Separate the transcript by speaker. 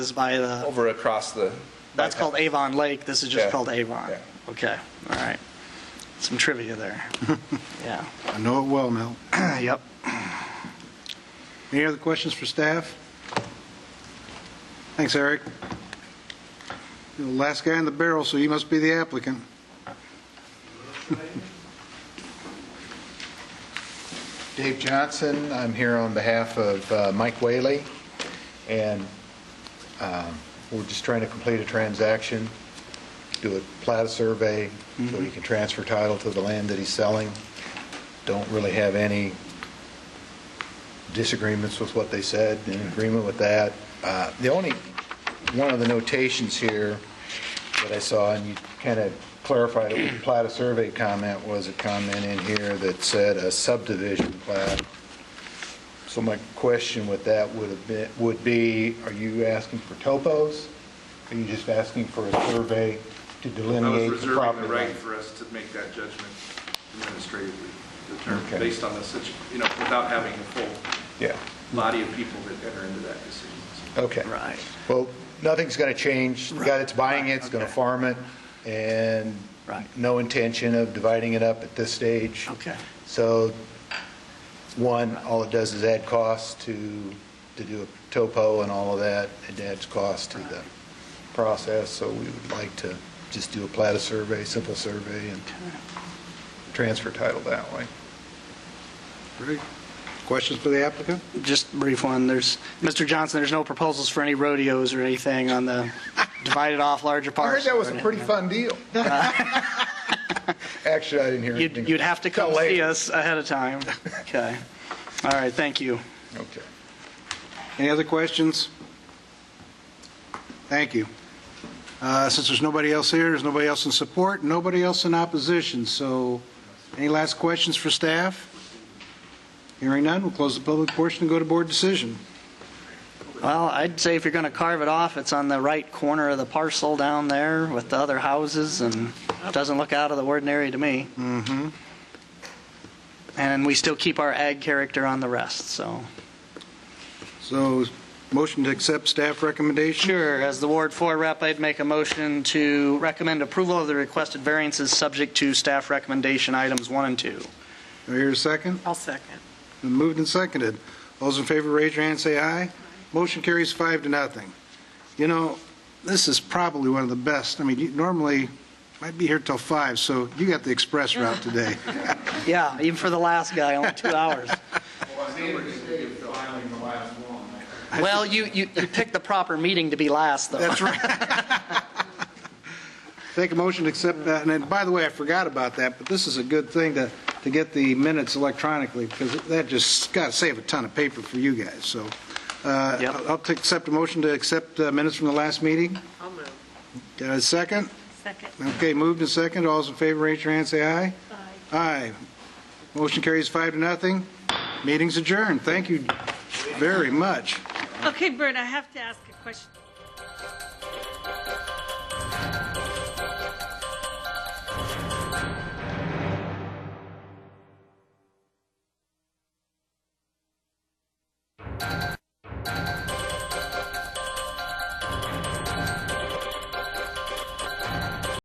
Speaker 1: is by the,
Speaker 2: over across the.
Speaker 1: that's called Avon Lake, this is just
Speaker 2: Yeah.
Speaker 1: called Avon.
Speaker 2: Yeah.
Speaker 1: Okay, all right. Some trivia there. Yeah,
Speaker 3: I know it well, Mel.
Speaker 1: yep.
Speaker 3: Any other questions for staff? Thanks, Eric. You're the last guy in the barrel, so you must be the applicant.
Speaker 4: Dave Johnson, I'm here on behalf of uh, Mike Whaley, and um, we're just trying to complete a transaction, do a plat survey, so he can transfer title to the land that he's selling. Don't really have any disagreements with what they said, in agreement with that. Uh, The only, one of the notations here that I saw, and you kind of clarified it with the plat of survey comment, was a comment in here that said a subdivision plat. So my question with that would have been, would be, are you asking for topos? Are you just asking for a survey to
Speaker 5: I was
Speaker 4: delineate the
Speaker 5: reserving
Speaker 4: property
Speaker 5: the right
Speaker 4: line?
Speaker 5: for us to make that judgment administratively,
Speaker 4: Okay.
Speaker 5: determined, based on the, situ- you know, without having the full
Speaker 4: Yeah,
Speaker 5: body of people that enter into that decision. So
Speaker 4: okay.
Speaker 1: Right.
Speaker 4: Well, nothing's going to change. The guy that's buying it's going to
Speaker 1: okay.
Speaker 4: farm it, and
Speaker 1: Right.
Speaker 4: no intention of dividing it up at this stage.
Speaker 1: Okay.
Speaker 4: So, one, all it does is add cost to, to do a topo and all of that. It adds cost to the process, so we would like to just do a plat of survey, simple survey, and transfer title that way.
Speaker 3: Great. Questions for the applicant?
Speaker 1: Just a brief one, there's, Mr. Johnson, there's no proposals for any rodeos or anything on the divided off larger
Speaker 4: I heard
Speaker 1: parcel.
Speaker 4: that was a
Speaker 1: or
Speaker 4: pretty
Speaker 1: anything.
Speaker 4: fun deal. Actually, I didn't hear anything.
Speaker 1: You'd, you'd have to come
Speaker 4: Till later.
Speaker 1: see us ahead of time. Okay, all right, thank you.
Speaker 4: Okay.
Speaker 3: Any other questions? Thank you. Uh, Since there's nobody else here, there's nobody else in support, nobody else in opposition, so any last questions for staff? Hearing none, we'll close the public portion and go to board decision.
Speaker 1: Well, I'd say if you're going to carve it off, it's on the right corner of the parcel down there with the other houses, and it doesn't look out of the ordinary to me. Mm-hmm. And we still keep our ag character on the rest, so.
Speaker 3: So, motion to accept staff recommendation?
Speaker 1: Sure, as the Ward 4 rep, I'd make a motion to recommend approval of the requested variances subject to staff recommendation items one and two.
Speaker 3: Do I hear a second?
Speaker 6: I'll second.
Speaker 3: Been moved and seconded. All Those in favor, raise your hand, say aye. Motion carries five to nothing. You know, this is probably one of the best. I mean, you normally, might be here till five, so you got the express route today.
Speaker 1: Yeah, even for the last guy, only two hours. Well, you, you you picked the proper meeting to be last, though.
Speaker 3: That's right. Take a motion to accept that, and then, by the way, I forgot about that, but this is a good thing to, to get the minutes electronically, because that just got to save a ton of paper for you guys, so. uh,
Speaker 1: Yep.
Speaker 3: I'll- I'll take- accept a motion to accept uh, minutes from the last meeting.
Speaker 6: I'll move.
Speaker 3: Got a second?
Speaker 6: Second.
Speaker 3: Okay, moved and second. All those in favor, raise your hand, say aye. Aye. Aye. Motion carries five to nothing. Meeting's adjourned. Thank you very much.
Speaker 7: Okay, Bert, I have to ask a question.